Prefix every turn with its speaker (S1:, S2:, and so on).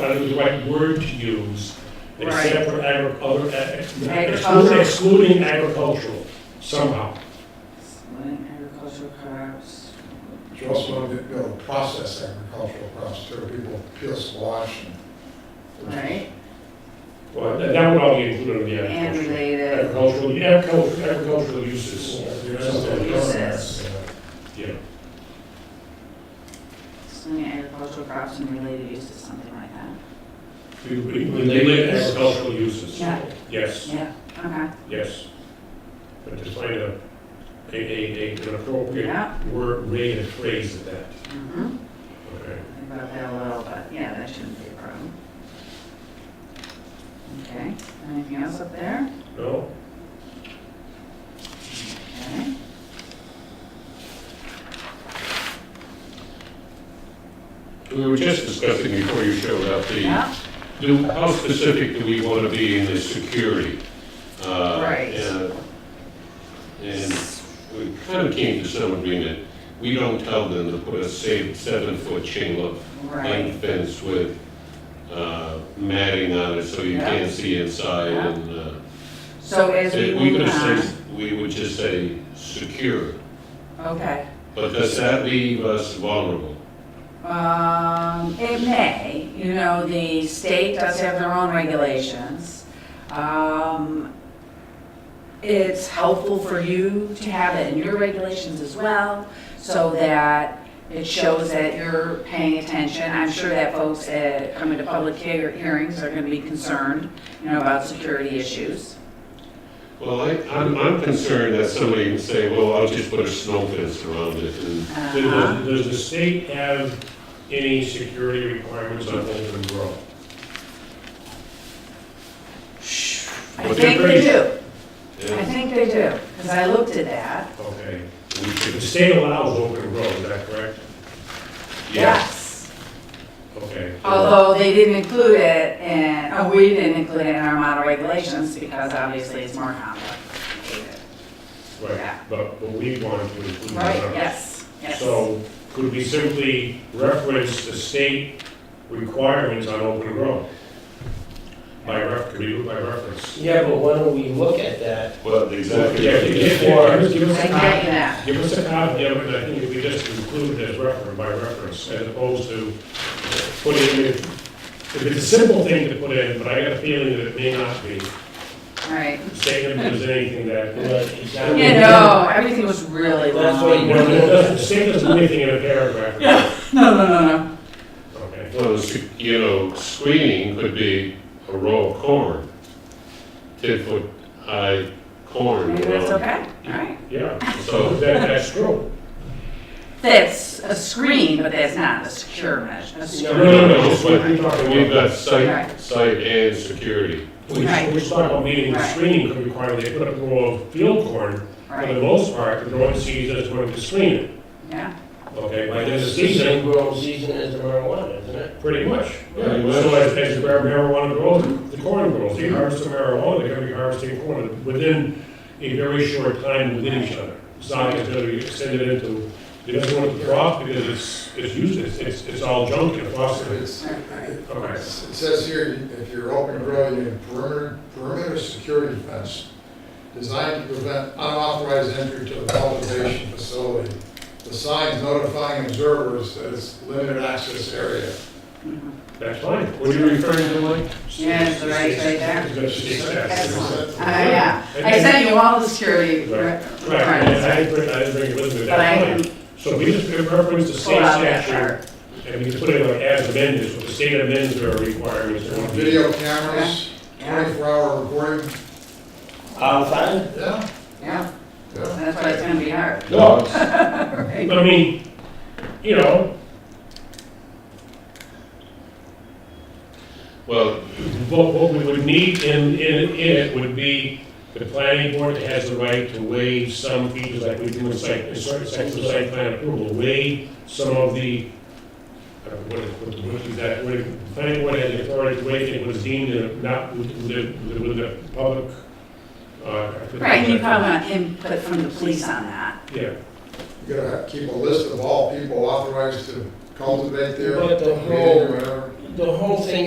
S1: don't know the right word to use, except for agricultural,
S2: Agricultural.
S1: excluding agricultural somehow.
S2: Excluding agricultural crops.
S3: You also want to be able to process agricultural crops too, people peel squash and.
S2: Right,
S1: Well, that that would all be included in the
S2: and
S1: agricultural.
S2: related,
S1: Agricultural, agricul- agricultural uses.
S3: Yeah,
S1: That's what they-
S2: Uses.
S1: Yeah,
S2: excluding agricultural crops and related uses, something like that.
S1: we, we, we label agricultural uses.
S2: Yeah.
S1: Yes,
S2: Yeah. Okay,
S1: yes. But just find a, a, a, a- an appropriate
S2: yeah.
S1: word, way to phrase of that,
S2: Mhm.
S1: okay?
S2: Think about that a little, but yeah, that shouldn't be a problem. Okay, anything else up there?
S1: No?
S2: Okay.
S4: We were just discussing before you showed up the,
S2: Yeah,
S4: do- how specific do we want to be in the security? Uh,
S2: Right.
S4: And and we kind of came to some agreement. We don't tell them to put a sa- seven-foot chain link
S2: right,
S4: link fence with uh, matting on it so you
S2: Yeah.
S4: can't see inside
S2: Yeah.
S4: and. uh,
S2: so as we
S4: it- Uh, we
S2: move
S4: could
S2: on,
S4: say- We would just say secure,
S2: okay.
S4: but does that leave us vulnerable?
S2: Um, it may, you know, the state does have their own regulations. Um, it's helpful for you to have it in your regulations as well, so that it shows that you're paying attention. I'm sure that folks that come into public hear- hearings are gonna be concerned, you know, about security issues.
S4: Well, I, I'm, I'm concerned that somebody can say, well, I'll just put a snow fence around it and,
S1: Does-
S2: Uh-huh.
S1: Does does the state have any security requirements on open grow?
S2: I think they do, I
S4: and
S2: think they do, because I looked at that.
S1: Okay,
S4: we
S1: the
S4: should,
S1: state allows open grow, is that correct?
S4: yeah.
S1: Okay.
S2: Although they didn't include it in, oh, we didn't include it in our model regulations because obviously it's more complicated.
S1: Right, but, but we wanted to include that.
S2: Right, yes, yes.
S1: So could we simply reference the state requirements on open grow? By ref, could we do it by reference?
S5: Yeah, but why don't we look at that?
S4: Well, exactly.
S1: Yeah, give- give- give us
S2: I
S1: a
S2: get
S1: copy,
S2: you now.
S1: give us a copy of it, and I think if we just include it as reference, by reference, as opposed to putting it, if it's a simple thing to put in, but I got a feeling that it may not be.
S2: Right.
S1: Statement if there's anything that,
S5: Exactly.
S2: You know, everything was really
S5: That's
S2: long.
S5: what
S1: you know, it doesn't, state doesn't do anything in a paragraph.
S2: Yeah, no, no, no, no.
S1: Okay.
S4: Well, s- you know, screening could be a row of corn, ten foot high corn.
S2: Maybe
S4: you
S2: that's
S4: know.
S2: okay, all right.
S1: Yeah, so
S4: So,
S1: that, that's true.
S2: That's a screen, but that's not a secure measure, a
S1: No,
S2: secure.
S1: no, no, just what you're talking
S4: we've
S1: about.
S4: got site,
S2: Right.
S4: site and security.
S1: We
S2: Right.
S1: we talked about meeting the
S2: Right.
S1: screening could require they put up a row of field corn. For the
S2: Right,
S1: most part, the growing season is going to screen it,
S2: yeah,
S1: okay? Like there's a
S5: It's the
S1: season,
S5: same growing season as the marijuana, isn't it?
S1: pretty much.
S4: Pretty much.
S1: So as, as the marijuana grows, the corn grows. They harvest the marijuana, they're gonna be harvesting corn within a very short time within each other. It's not going to be extended into, it doesn't want to drop because it's, it's used, it's, it's, it's all junk in the process.
S3: It's-
S2: right, right.
S3: It
S1: Okay.
S3: says here, if you're open grow, you need perimeter, perimeter security fence designed to prevent unauthorized entry to the cultivation facility. The signs notifying observers that it's limited access area.
S2: Mhm.
S1: That's fine.
S4: What are you referring to, Mike?
S2: Yeah, it's right, right there.
S1: It's gonna- it's- it's-
S2: Excellent. Uh, yeah, I sent you all the security.
S1: Right. Right,
S2: requirements,
S1: and I didn't bring, I didn't bring it with me at
S2: But I
S1: that
S2: can
S1: point. So we just reference the
S2: pull
S1: state
S2: out that part.
S1: statute, and we just put it like as amended, so the state amends their requirements. and we-
S3: Video cameras,
S2: Yeah,
S3: twenty-four hour recording,
S5: I'm fine.
S3: yeah,
S2: yeah,
S3: yeah.
S2: that's why it's gonna be hard.
S4: Dogs?
S2: right?
S1: I mean, you know,
S4: Well,
S1: what, what we would need in, in, in it would be the planning board has the right to waive some features like we do in site, in certain sections of site plan approval, waive some of the, I don't know, what, what, what is that, what, the planning board has the authority to waive it was deemed in- not within, the- within the public, uh.
S2: Right, and you probably want input from the police on that.
S1: Yeah,
S3: You gotta have- keep a list of all people authorized to cultivate their,
S5: But the
S3: or whatever.
S5: The whole thing